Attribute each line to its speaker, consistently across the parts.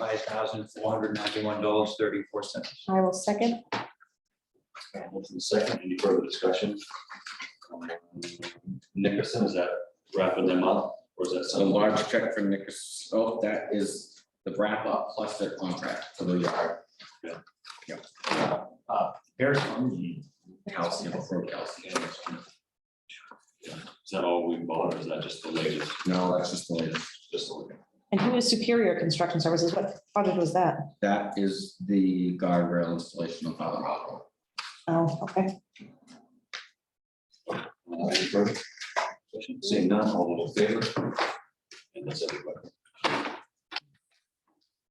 Speaker 1: five thousand four hundred ninety-one dollars thirty-four cents.
Speaker 2: I will second.
Speaker 3: Uh, Motion is second, any further discussion? Um, Nickerson, is that wrapping them up, or is that
Speaker 4: So a
Speaker 3: some?
Speaker 4: large check from Nickers, oh, that is the wrap up plus their contract for the yard,
Speaker 3: Uh, Harrison, is
Speaker 4: calcium, pro calcium.
Speaker 3: that all we bought, or is that just the latest,
Speaker 4: No, that's just the latest.
Speaker 3: just the latest?
Speaker 2: And who is Superior Construction Services? What project was that?
Speaker 4: That is the guardrail installation on Father Hall.
Speaker 2: Oh, okay.
Speaker 3: Uh, Any further? discussion? Seeing none, all those in favor? And that's everybody.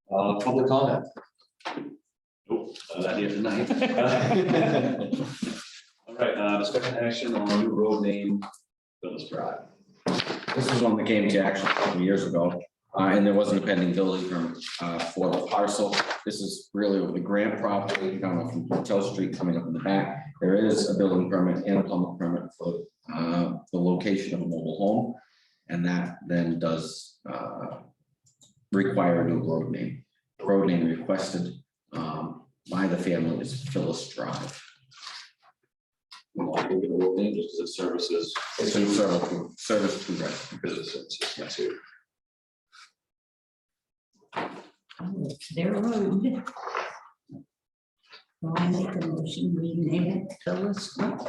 Speaker 3: Uh, public comment? Nope, uh, not here tonight. All right, uh, discussion action on new road name, Phyllis Drive.
Speaker 4: This is one that came to action a couple years ago, uh, and there wasn't a pending building permit, uh, for the parcel. This is really over the grant property, coming up from Hotel Street, coming up in the back. There is a building permit and a plumbing permit for, uh, the location of a mobile home. And that then does, uh, require a new road name. The Road name requested, um, by the family is Phyllis Drive.
Speaker 3: We want to look at the road name, just as it services.
Speaker 4: It's in service, to- service to residents.
Speaker 3: Businesses, that's it.
Speaker 5: their road. So I make a motion, we name it Phyllis Drive.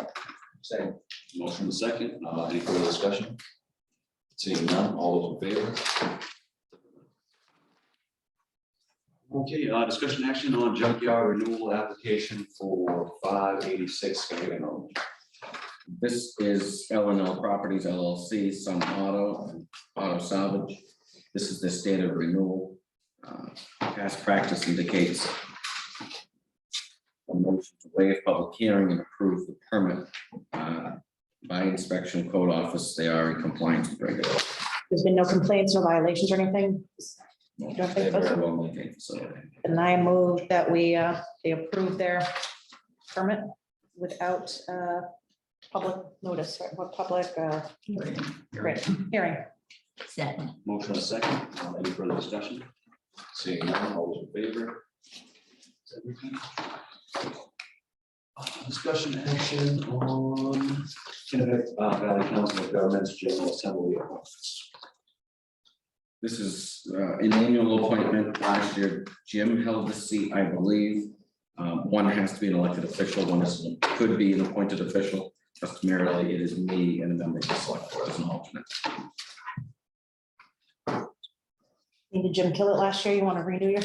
Speaker 3: Second. Motion is second, uh, any further discussion? Seeing none, all those in favor? Okay, uh, discussion action on junkyard renewal application for five eighty-six Skagit Road.
Speaker 4: This is L and L Properties LLC, Sun Auto and Auto Salvage. This is the standard renewal. Uh, Past practice indicates a motion to waive public hearing and approve the permit. Uh, By inspection code office, they are in compliance with regular.
Speaker 2: There's been no complaints or violations or anything? don't
Speaker 4: They
Speaker 2: think
Speaker 4: very well maintained facility.
Speaker 2: And I move that we, uh, they approve their permit without, uh, public notice, right, what public, uh, great, hearing.
Speaker 5: Second,
Speaker 3: Motion is second, uh, any further discussion? Seeing none, all those in favor? Is that everything? Uh, Discussion action on Kennebec uh, Valley Council of Governments General Assembly. appointments.
Speaker 4: This is uh, an annual appointment. Last year, Jim held the seat, I believe. Um, One has to be an elected official, one is, could be an appointed official. Customarily, it is me and a member of the select board as an alternate.
Speaker 2: Did Jim kill it last year? You want to renew your?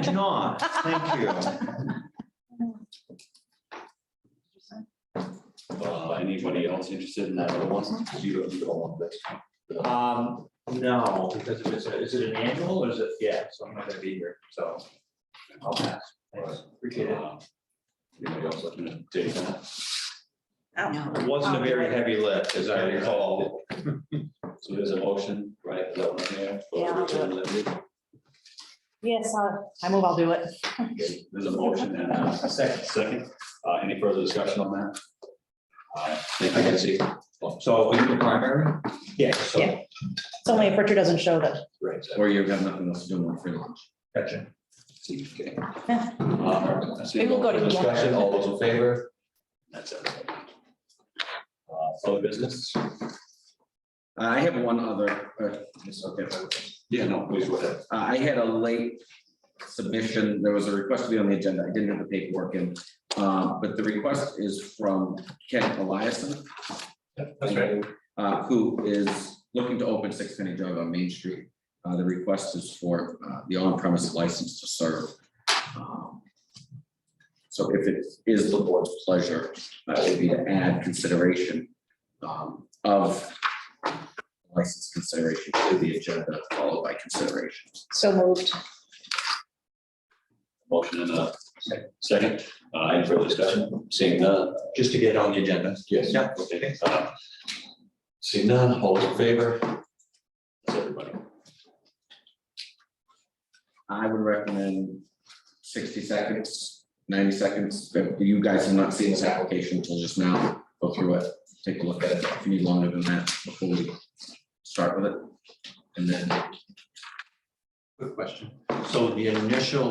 Speaker 1: Did not, thank you.
Speaker 3: Uh, Anybody else interested in that other one? You don't you don't want this.
Speaker 1: Um, no, because if it's, a- is it an annual or is it, yeah, so I'm not gonna be here, so. I'll pass. Thanks. Appreciate it.
Speaker 3: Uh, Anybody else looking to take that?
Speaker 5: no.
Speaker 1: It wasn't a very heavy lift, as I recall.
Speaker 3: So there's a motion, right? Is that one there?
Speaker 2: Yeah, I'll Yes, I move I'll do it.
Speaker 3: Okay, There's a motion and a second, second. Uh, any further discussion on that? Uh, I can see.
Speaker 1: So are you the primary?
Speaker 3: Yeah, so,
Speaker 2: Yeah. It's only if Richard doesn't show that.
Speaker 3: right, so,
Speaker 4: Or you've got nothing else to do on free lunch.
Speaker 1: Gotcha.
Speaker 3: okay. Uh, I see
Speaker 2: We will go
Speaker 3: no further
Speaker 2: together.
Speaker 3: Discussion, all those in favor? That's it. Uh, other business?
Speaker 4: Uh, I have one other, uh, it's okay.
Speaker 3: Yeah, no, please go ahead.
Speaker 4: Uh, I had a late submission. There was a request to be on the agenda. I didn't have the paperwork in. Uh, But the request is from Ken Eliason.
Speaker 1: That's right.
Speaker 4: uh, who is looking to open Six Penny Drive on Main Street. Uh, the request is for, uh, the on-premise license to serve. Um, So if it is the board's pleasure, that would be to add consideration, um, of license consideration to the agenda, followed by consideration.
Speaker 2: So moved.
Speaker 3: Motion and a second, uh, any further discussion? Seeing none. Just to get on the agenda. Yes.
Speaker 1: Yeah.
Speaker 3: Okay. uh, Seeing none, all those in favor? That's everybody.
Speaker 4: I would recommend sixty seconds, ninety seconds. If You guys have not seen this application until just now. Go through it, take a look at it. If you need longer than that before we start with it. And then
Speaker 1: Quick question. So the initial